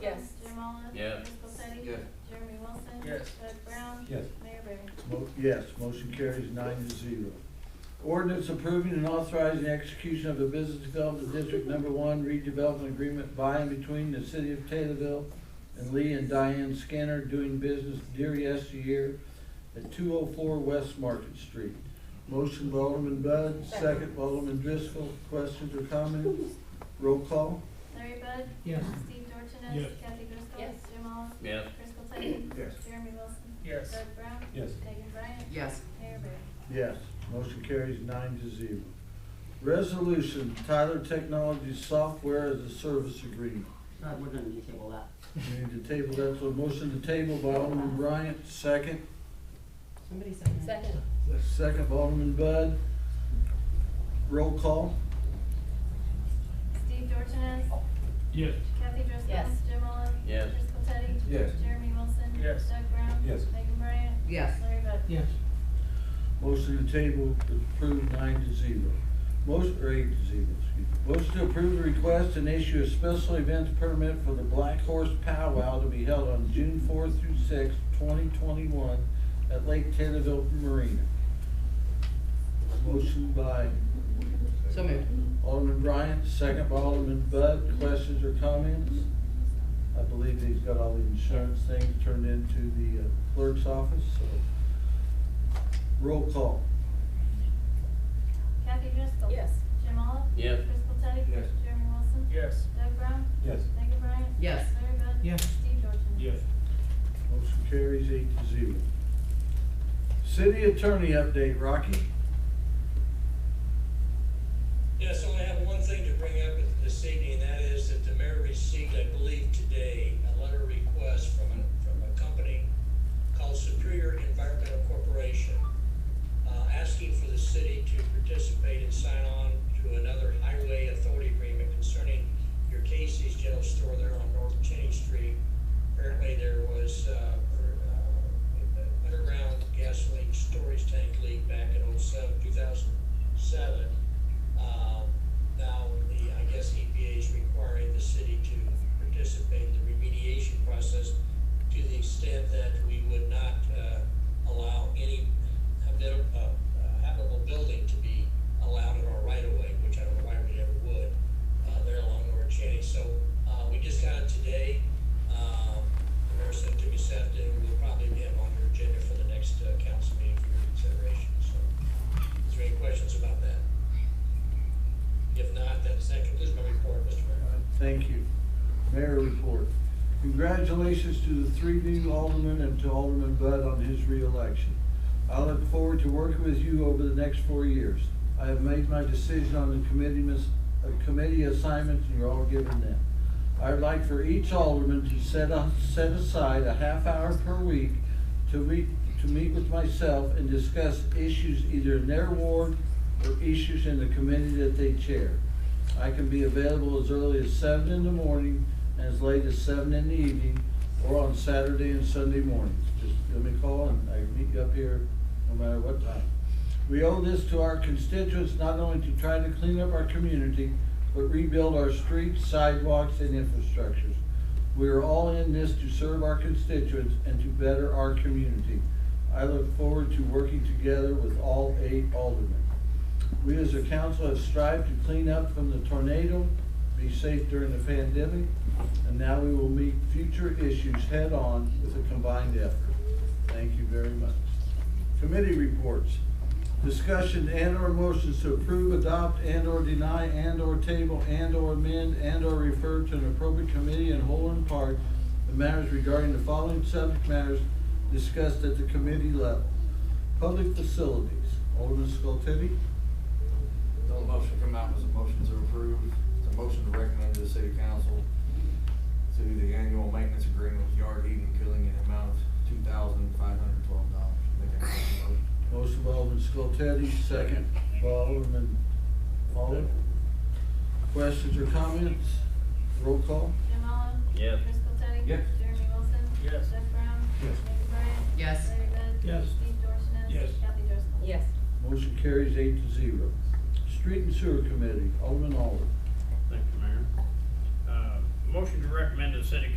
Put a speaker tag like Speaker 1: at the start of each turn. Speaker 1: Yes.
Speaker 2: Jim Olive.
Speaker 3: Yes.
Speaker 2: Chris Popetti.
Speaker 3: Yes.
Speaker 2: Jeremy Wilson.
Speaker 4: Yes.
Speaker 2: Doug Brown.
Speaker 5: Yes.
Speaker 2: Mayor Barry.
Speaker 5: Mo- Yes, motion carries nine to zero. Ordinance approving and authorizing execution of a business development district number one redevelopment agreement by and between the city of Taylorville and Lee and Diane Scanner doing business Deary Year at two oh four West Market Street. Motion by Alderman Bud, second by Alderman Driscoll. Questions or comments? Roll call.
Speaker 2: Larry Bud.
Speaker 4: Yes.
Speaker 2: Steve Dorsones.
Speaker 4: Yes.
Speaker 2: Kathy Driscoll.
Speaker 1: Yes.
Speaker 2: Jim Olive.
Speaker 3: Yes.
Speaker 2: Chris Popetti.
Speaker 5: Yes.
Speaker 2: Jeremy Wilson.
Speaker 4: Yes.
Speaker 2: Doug Brown.
Speaker 5: Yes.
Speaker 2: Megan Bryan.
Speaker 6: yes,
Speaker 2: Mayor Barry.
Speaker 5: Yes, motion carries nine to zero. Resolution, Tyler Technologies Software as a Service Agreement.
Speaker 7: Uh, we're gonna need to table that.
Speaker 5: We need to table that, so motion to table by Alderman Bryant, second,
Speaker 6: somebody second. it.
Speaker 1: Second.
Speaker 5: second by Alderman Bud. Roll call?
Speaker 2: Steve Dorsones.
Speaker 4: Yes.
Speaker 2: Kathy Driscoll.
Speaker 1: Yes.
Speaker 2: Jim Olive.
Speaker 3: Yes.
Speaker 2: Chris Popetti.
Speaker 5: Yes.
Speaker 2: Jeremy Wilson.
Speaker 4: Yes.
Speaker 2: Doug Brown.
Speaker 5: Yes.
Speaker 2: Megan Bryan.
Speaker 6: Yes,
Speaker 2: Larry Bud.
Speaker 4: Yes.
Speaker 5: Motion to table is approved nine to zero. Motion, or eight to zero, excuse me. Motion to approve the request and issue a special events permit for the Black Horse Powwow to be held on June fourth through sixth, twenty twenty-one at Lake Taylorville Marina. Motion by
Speaker 6: so moved.
Speaker 5: Alderman Bryant, second by Alderman Bud. Questions or comments? I believe he's got all the insurance things turned into the uh, clerk's office, so. Roll call.
Speaker 2: Kathy Driscoll.
Speaker 1: Yes.
Speaker 2: Jim Olive.
Speaker 3: Yes.
Speaker 2: Chris Popetti.
Speaker 5: Yes.
Speaker 2: Jeremy Wilson.
Speaker 4: Yes.
Speaker 2: Doug Brown.
Speaker 5: Yes.
Speaker 2: Megan Bryan.
Speaker 6: Yes.
Speaker 2: Larry Bud.
Speaker 4: Yes.
Speaker 2: Steve Dorsones.
Speaker 5: Motion carries eight to zero. City attorney update, Rocky?
Speaker 8: Yes, I only have one thing to bring up this evening, and that is that the mayor received, I believe today, a letter request from, an- from a company called Superior Environmental Corporation, uh, asking for the city to participate and sign on to another highway authority agreement concerning your Casey's General Store there on North Cheney Street. Apparently there was, uh, uh, underground gasoline storage tank leak back in oh seven, two thousand seven. Um, Now, the, I guess EPA is requiring the city to participate in the remediation process to the extent that we would not uh, allow any habit- uh, habitable building to be allowed in our right of way, which I don't know why we ever would, uh, there along North Cheney. So uh, we just got it today. Um, The mayor sent it to me this afternoon. We'll probably have on your agenda for the next uh, council meeting for your consideration. So is there any questions about that? If not, then that concludes my report, Mr. Mayor.
Speaker 5: Thank you. Mayor report. Congratulations to the three new aldermen and to Alderman Bud on his reelection. I look forward to working with you over the next four years. I have made my decision on the committee, mis- uh, committee assignments, and you're all given them. I'd like for each alderman to set, a- set aside a half hour per week to meet, to meet with myself and discuss issues either in their ward or issues in the committee that they chair. I can be available as early as seven in the morning and as late as seven in the evening, or on Saturday and Sunday mornings. Just give me a call and I can meet you up here no matter what time. We owe this to our constituents, not only to try to clean up our community, but rebuild our streets, sidewalks, and infrastructures. We are all in this to serve our constituents and to better our community. I look forward to working together with all eight aldermen. We as a council have strived to clean up from the tornado, be safe during the pandemic, and now we will meet future issues head-on with a combined effort. Thank you very much. Committee reports. Discussion and/or motions to approve, adopt, and/or deny, and/or table, and/or amend, and/or refer to an appropriate committee in whole and part the matters regarding the following subject matters discussed at the committee level. Public facilities. Alderman Skoltedi?
Speaker 9: The motion to come out was a motion to approve, it's a motion to recommend to the city council to the annual maintenance agreement with yard heating and cooling in the amount of two thousand five hundred twelve dollars. Make that motion.
Speaker 5: Motion by Alderman Skoltedi, second by Alderman Olive. Questions or comments? Roll call?
Speaker 2: Jim Olive.
Speaker 3: Yes.
Speaker 2: Chris Popetti.
Speaker 9: Yes.
Speaker 2: Jeremy Wilson.
Speaker 4: Yes.
Speaker 2: Doug Brown.
Speaker 5: Yes.
Speaker 2: Megan Bryan.
Speaker 6: Yes.
Speaker 2: Larry Bud.
Speaker 4: Yes.
Speaker 2: Steve Dorsones.
Speaker 4: Yes.
Speaker 2: Kathy Driscoll.
Speaker 1: Yes.
Speaker 5: Motion carries eight to zero. Street and Sewer Committee, Alderman Olive.
Speaker 3: Thank you, Mayor.
Speaker 4: Uh, motion to recommend to the city